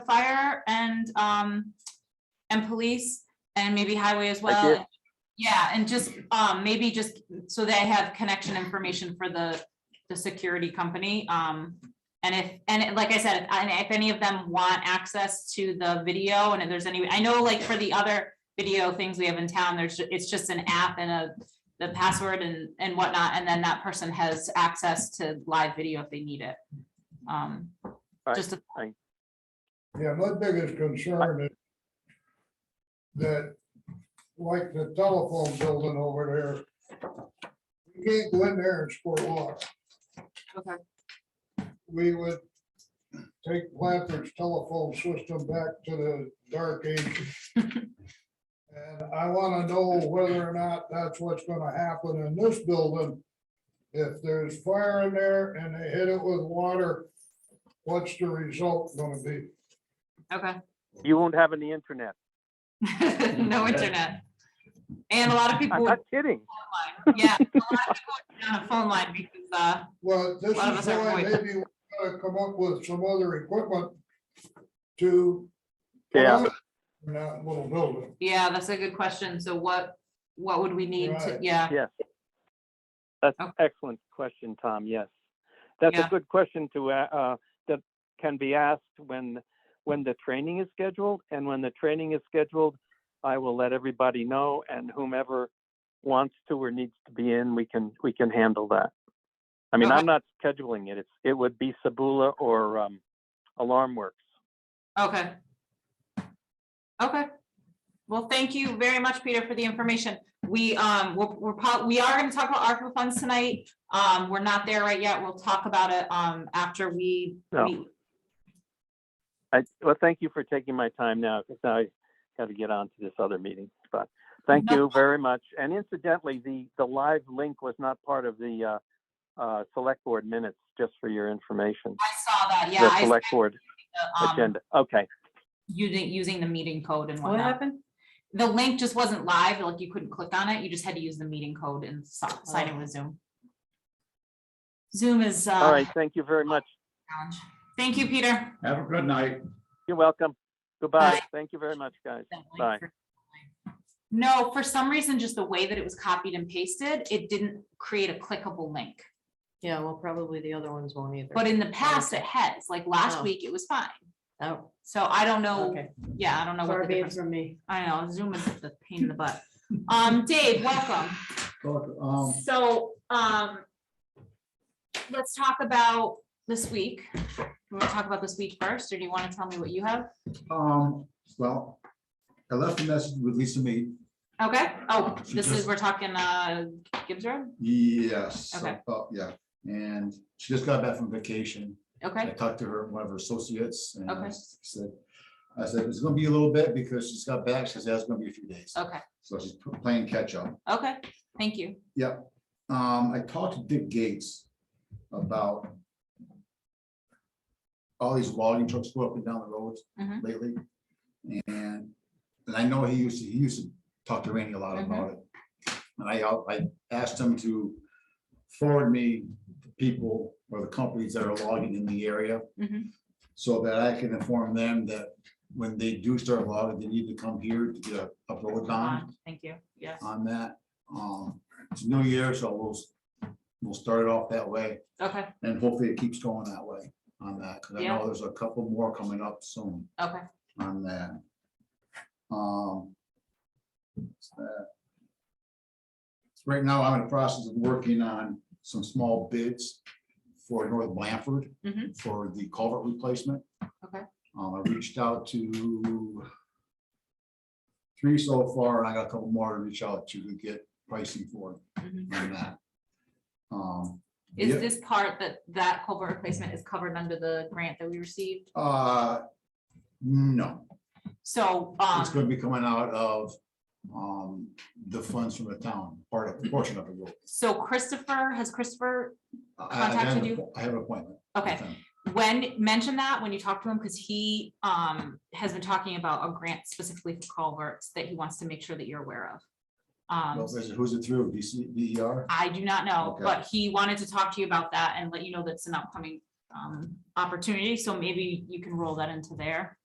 fire and, um, and police and maybe highway as Like well. it? Yeah, and just, um, maybe just so they have connection information for the, the security company. Um, and if, and it- like I said, if- and if any of them want access to the video and if there's any, I know like for the other video things we have in town, there's, ju- it's just an app and a, the password and, and whatnot, and then that person has access to live video if they need it. Um, Right. just, a- Yeah, my biggest concern is that, like the telephone building over there, you can't go in there and squirt water. Okay. We would take Blanford's telephone system back to the dark ages. And I want to know whether or not that's what's going to happen in this building. If there's fire in there and they hit it with water, what's the result going to be? okay, You won't have any internet. no internet. And a lot of people, I'm would not kidding. phone line. yeah, a lot of people would be on a phone line because, uh, Well, this lot of us is aren't why going. maybe we gotta come up with some other equipment to. Yeah, In that little building. yeah, that's a good question. So what, what would we need to, Right. yeah, that's Okay. excellent question, Tom. Yes. That's a Yeah. good question to, a- uh, that can be asked when, when the training is scheduled. And when the training is scheduled, I will let everybody know and whomever wants to or needs to be in, we can, we can handle that. I mean, Okay. I'm not scheduling it. It's, it would be Sabula or, um, Alarm Works. okay. Okay, well, thank you very much, Peter, for the information. We, um, we're, we're, po- we are gonna talk about ARPA funds tonight. Um, we're not there right yet. We'll talk about it, um, after we No. meet I, well, thank you for taking my time now, because I got to get on to this other meeting, but thank No you very much. And incidentally, the, the live link was not part of the, uh, uh, select board minutes, just for your information. I saw that, yeah. The I select board saw the, um, agenda, okay, Using, using the meeting code and What whatnot. happened? The link just wasn't live, like you couldn't click on it. You just had to use the meeting code and si- sign in with Zoom. Zoom is, all uh, right, thank you very much. challenge. Thank you, Peter. Have a good night. You're welcome. Goodbye, Bye. thank you very much, guys. That link Bye. for- No, for some reason, just the way that it was copied and pasted, it didn't create a clickable link. Yeah, well, probably the other ones won't either. But in the past, it has, like last Oh. week, it was fine. Oh, So I don't know, okay. yeah, I don't know what Far the be it difference, from me. I know Zoom is the pain in the butt. Um, Dave, welcome. Look, Oh. um, So, um, let's talk about this week. You want to talk about this week first, or do you want to tell me what you have? um, well, I left a message with Lisa Mead. Okay, oh, She this is, just- we're talking, uh, Gibbs Road? Yes. Okay. about- yeah, and she just got back from vacation. I Okay, talked to her, one of her associates, and Okay. I said, I said, it's gonna be a little bit because she's got back. She says, it's gonna be a few days. okay, So she's playing catch up. okay, thank you. Yep, um, I talked to Dick Gates about all these logging trucks go up and down the roads Mhm. lately. And, and I know he used to, he used to talk to Randy a lot about it. And I, al- I asked him to forward me the people or the companies that are logging in the area Mhm. so that I can inform them that when they do start logging, they need to come here to get a- a road bond Fine, Thank you, yes, on that. Um, it's New Year, so we'll, we'll start it off that way okay, and hopefully it keeps going that way on that. Cause I Yeah. know there's a couple more coming up soon okay, on that. Um. what's that? Right now, I'm in the process of working on some small bids for North Blanford Mhm. for the culvert replacement. Okay. Um, I reached out to three so far, and I got a couple more to reach out to to get pricing for Mhm. on that. Um, Is yeah. this part that, that culvert replacement is covered under the grant that we received? Uh, no, So, It's um, gonna be coming out of, um, the funds from the town, part of, portion of the road. so Christopher, has Christopher, I- I have an Contacted you? appo- I have an appointment. with okay, them. when, mention that when you talk to him, because he um has been talking about a grant specifically for culverts that he wants to make sure that you're aware of. Well, Um, is it- Who's it through, DC, DER? I do not know, Okay. but he wanted to talk to you about that and let you know that's an upcoming um opportunity, so maybe you can roll that into there.